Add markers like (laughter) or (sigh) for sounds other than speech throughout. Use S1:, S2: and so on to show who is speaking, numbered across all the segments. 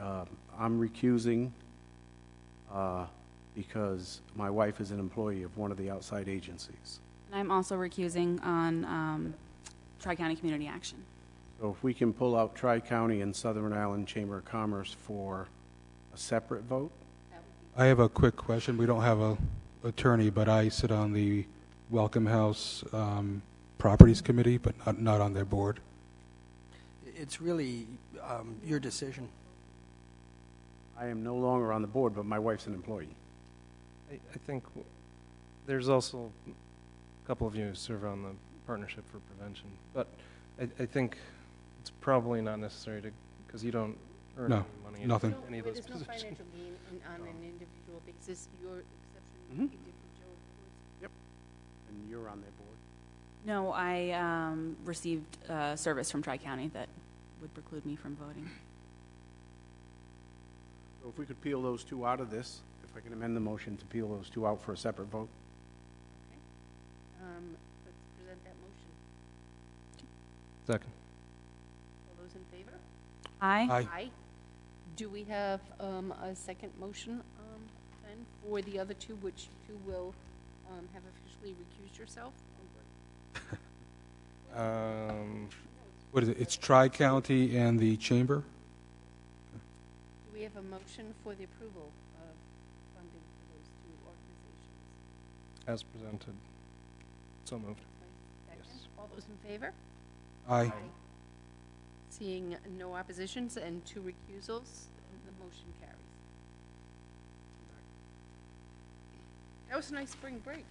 S1: uh, I'm recusing uh, because my wife is an employee of one of the outside agencies.
S2: And I'm also recusing on um, Tri-County Community Action.
S1: So if we can pull out Tri-County and Southern Island Chamber of Commerce for a separate vote?
S3: I have a quick question. We don't have a attorney, but I sit on the Welcome House um, Properties Committee, but not, not on their board.
S4: It's really um, your decision.
S1: I am no longer on the board, but my wife's an employee.
S5: I, I think w- there's also a couple of you who serve on the Partnership for Prevention, but I, I think it's probably not necessary to, because you don't earn
S3: No,
S5: any money. in
S3: nothing.
S5: Any of those
S6: There's no
S5: positions.
S6: financial gain in- on an individual basis, your
S1: Mhm.
S6: exception would be different, Joe, of course.
S1: And you're on their board?
S2: No, I um, received uh, service from Tri-County that would preclude me from voting.
S1: So if we could peel those two out of this, if I can amend the motion to peel those two out for a separate vote?
S6: Um, Let's present that motion.
S3: (laughs)
S5: Second.
S6: All those in favor?
S2: Aye.
S3: Aye.
S6: Do we have um, a second motion um, then for the other two, which you will um, have officially recused yourself?
S5: Um,
S3: What is it? It's Tri-County and the Chamber?
S6: Do we have a motion for the approval of funding for those two organizations?
S5: as presented. So moved.
S6: Second,
S5: Yes.
S6: all those in favor?
S3: Aye.
S6: Seeing no oppositions and two recusals, the motion carries. That was a nice spring break.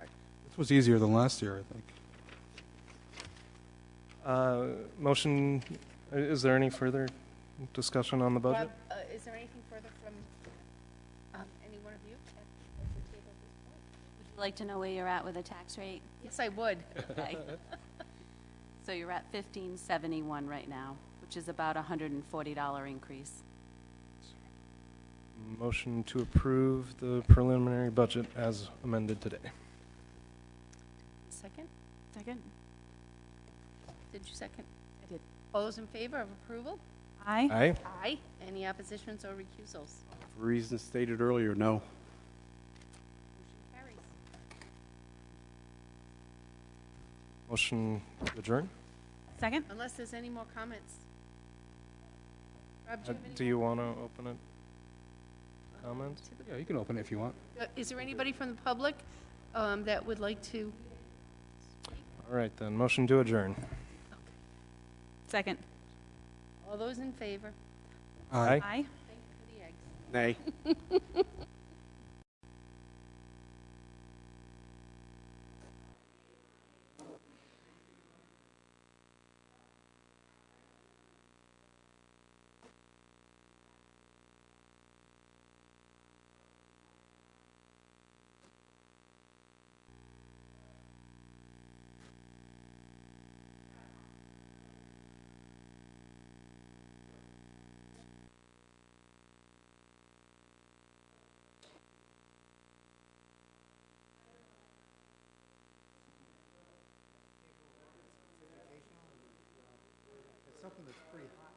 S3: This was easier than last year, I think.
S5: Uh, motion, i- is there any further discussion on the budget?
S6: Rob, uh, is there anything further from um, any one of you at at the table at this point?
S7: Would you like to know where you're at with the tax rate?
S2: (laughs)
S7: (laughs)
S6: Yes, I would.
S7: Okay. So you're at fifteen seventy-one right now, which is about a hundred and forty dollar increase.
S5: Motion to approve the preliminary budget as
S3: (laughs)
S5: amended today.
S6: Second?
S2: Second?
S6: Did you second?
S2: I did.
S6: All those in favor of approval?
S2: Aye.
S5: Aye.
S6: Aye. Any oppositions or recusals?
S1: For reasons stated earlier, no.
S6: Motion carries.
S5: Motion to adjourn?
S2: Second?
S6: Unless there's any more comments. Rob, do
S5: Uh,
S6: you have any?
S5: Do you want to open it? Comments?
S6: to the
S3: Yeah, you can open it if you want.
S6: Uh, Is there anybody from the public um, that would like to?
S5: All right, then. Motion to adjourn.
S2: Second.
S6: All those in favor?
S5: Aye.
S2: Aye.
S6: Thank you for the eggs.
S1: Nay.
S8: something that's pretty high.